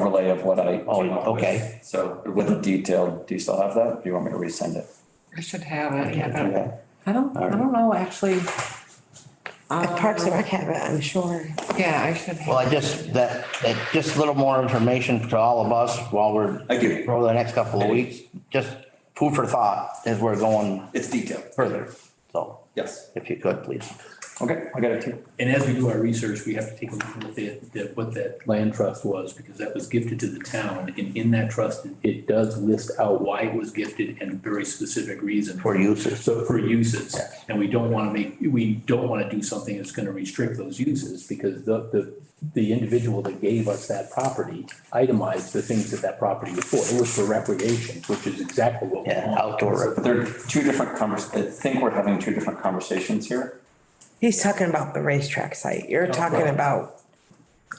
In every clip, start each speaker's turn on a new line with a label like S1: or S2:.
S1: of what I
S2: Oh,
S1: came up with.
S2: okay.
S1: So with the detail, do you still have that? Do you want me to resend it?
S3: I should have it, yeah,
S1: Okay.
S3: but I don't, I
S1: Alright.
S3: don't know, actually.
S4: If Parks and
S3: Um,
S4: Rec have it, I'm sure.
S3: Yeah, I should have.
S2: Well, I just, that, that, just a little more information to all of us while we're,
S1: I give you,
S2: over the next couple of weeks, just food for thought as we're going
S1: it's detailed,
S2: further. So
S1: yes.
S2: if you could, please.
S1: Okay, I got it too.
S5: And as we do our research, we have to take a look at what that, that- what that land trust was, because that was gifted to the town. And in that trust, it does list out why it was gifted and a very specific reason for,
S2: For uses.
S5: so for uses. And we don't want to make, we don't want to do something that's going to restrict those uses, because the, the, the individual that gave us that property itemized the things that that property was for. It was for recreation, which is exactly what we
S2: Yeah,
S5: want.
S2: outdoor.
S1: But there are two different convers, I think we're having two different conversations here.
S4: He's talking about the racetrack site. You're talking about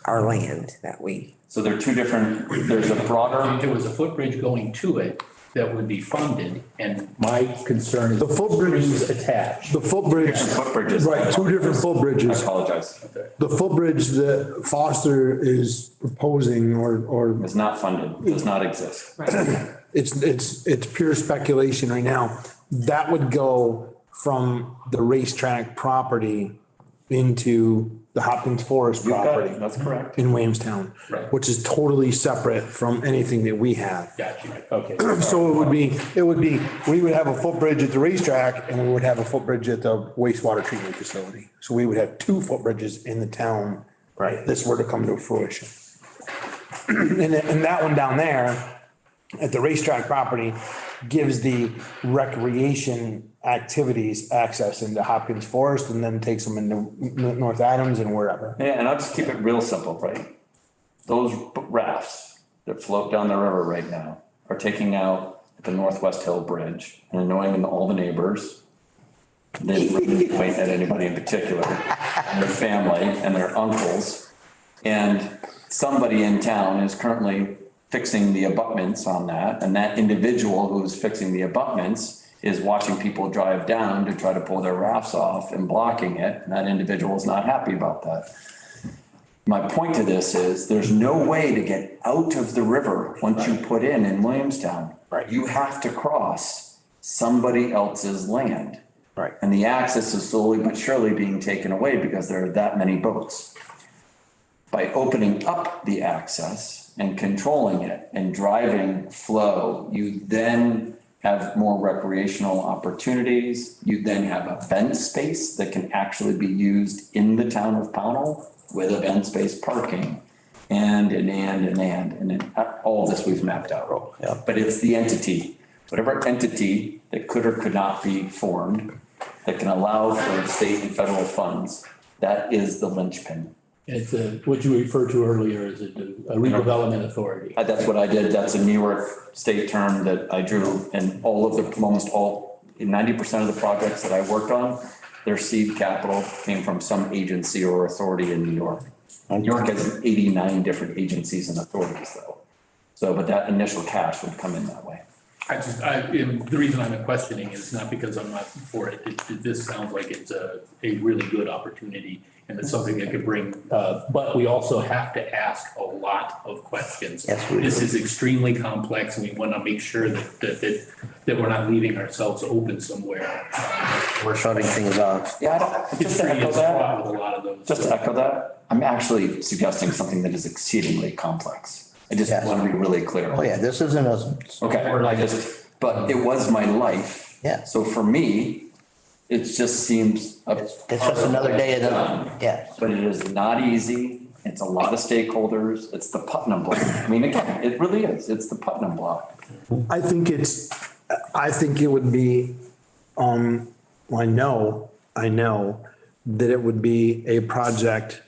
S4: our land that we,
S1: So there are two different, there's a
S5: If
S1: broader,
S5: There was a footbridge going to it that would be funded, and my concern is.
S6: The footbridge-
S5: Strings attached.
S6: The footbridge,
S1: footbridges.
S6: right, two different
S1: I
S6: footbridges.
S1: apologize.
S6: The footbridge that Foster is proposing or, or
S1: It's not funded, does not exist.
S6: it's, it's, it's pure speculation right now. That would go from the racetrack property into the Hopkins Forest
S1: You've got
S6: property
S1: it, That's correct.
S6: in Williamstown.
S5: Right.
S6: Which is totally separate from anything that we have.
S5: Got you, okay.
S6: So it would be, it would be, we would have a footbridge at the racetrack and we would have a footbridge at the wastewater treatment facility. So we would have two footbridges in the town.
S2: Right.
S6: if This were to come to fruition. And, that- and that one down there at the racetrack property gives the recreation activities access into Hopkins Forest and then takes them into N- North Adams and wherever.
S1: Yeah, and I'll just keep it real simple, right? Those rafts that float down the river right now are taking out the Northwest Hill Bridge and annoying all the neighbors. They really point at anybody in particular, and their family and their uncles. And somebody in town is currently fixing the abutments on that, and that individual who's fixing the abutments is watching people drive down to try to pull their rafts off and blocking it, and that individual is not happy about that. My point to this is, there's no way to get out of the river once you put in in Williamstown.
S2: Right.
S1: You have to cross somebody else's land.
S2: Right.
S1: And the access is slowly but surely being taken away because there are that many boats. By opening up the access and controlling it and driving flow, you then have more recreational opportunities. You then have event space that can actually be used in the town of Pownell with event space parking. And, and, and, and, and, and then, uh, all this we've mapped out.
S2: Yeah.
S1: But it's the entity, whatever entity that could or could not be formed that can allow for state and federal funds, that is the linchpin.
S5: It's a, what you referred to earlier as a de- a redevelopment authority.
S1: Uh, That's what I did. That's a New York state term that I drew and all of the, almost all, ninety percent of the projects that I worked on, their seed capital came from some agency or authority in New York. New York has eighty-nine different agencies and authorities though. So, but that initial cash would come in that way.
S5: I just, I, and the reason I'm questioning is not because I'm not for it, it, it- this sounds like it's a, a really good opportunity and it's something that could bring, uh, but we also have to ask a lot of questions.
S2: Yes, we do.
S5: This is extremely complex and we want to make sure that, that, that, that we're not leaving ourselves open somewhere.
S2: We're shutting things off.
S1: Yeah, I don't, just to
S5: History
S1: echo
S5: is
S1: that,
S5: fraught with a lot of those.
S1: Just to echo that, I'm actually suggesting something that is exceedingly complex. I just
S2: Yes.
S1: want to be really clear.
S2: Oh, yeah, this isn't a,
S1: Okay, or I just, but it was my life.
S2: Yeah.
S1: So for me, it just seems. a-
S2: it's it's just another day of the, yeah.
S1: But it is not easy. It's a lot of stakeholders. It's the Putnam block. I mean, again, it really is. It's the Putnam block.
S6: I think it's, I think it would be, um, well, I know, I know that it would be a project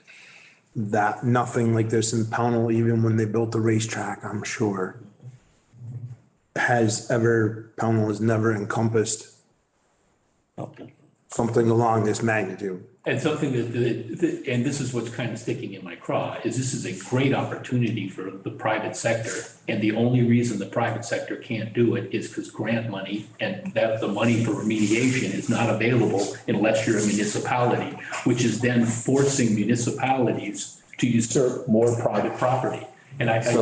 S6: that nothing like this in Pownell, even when they built the racetrack, I'm sure, has ever, Pownell has never encompassed something along this magnitude.
S5: And something that- that, that- and this is what's kind of sticking in my craw, is this is a great opportunity for the private sector. And the only reason the private sector can't do it is because grant money and that the money for remediation is not available unless you're a municipality, which is then forcing municipalities to usurp more private property. And I. I-
S1: So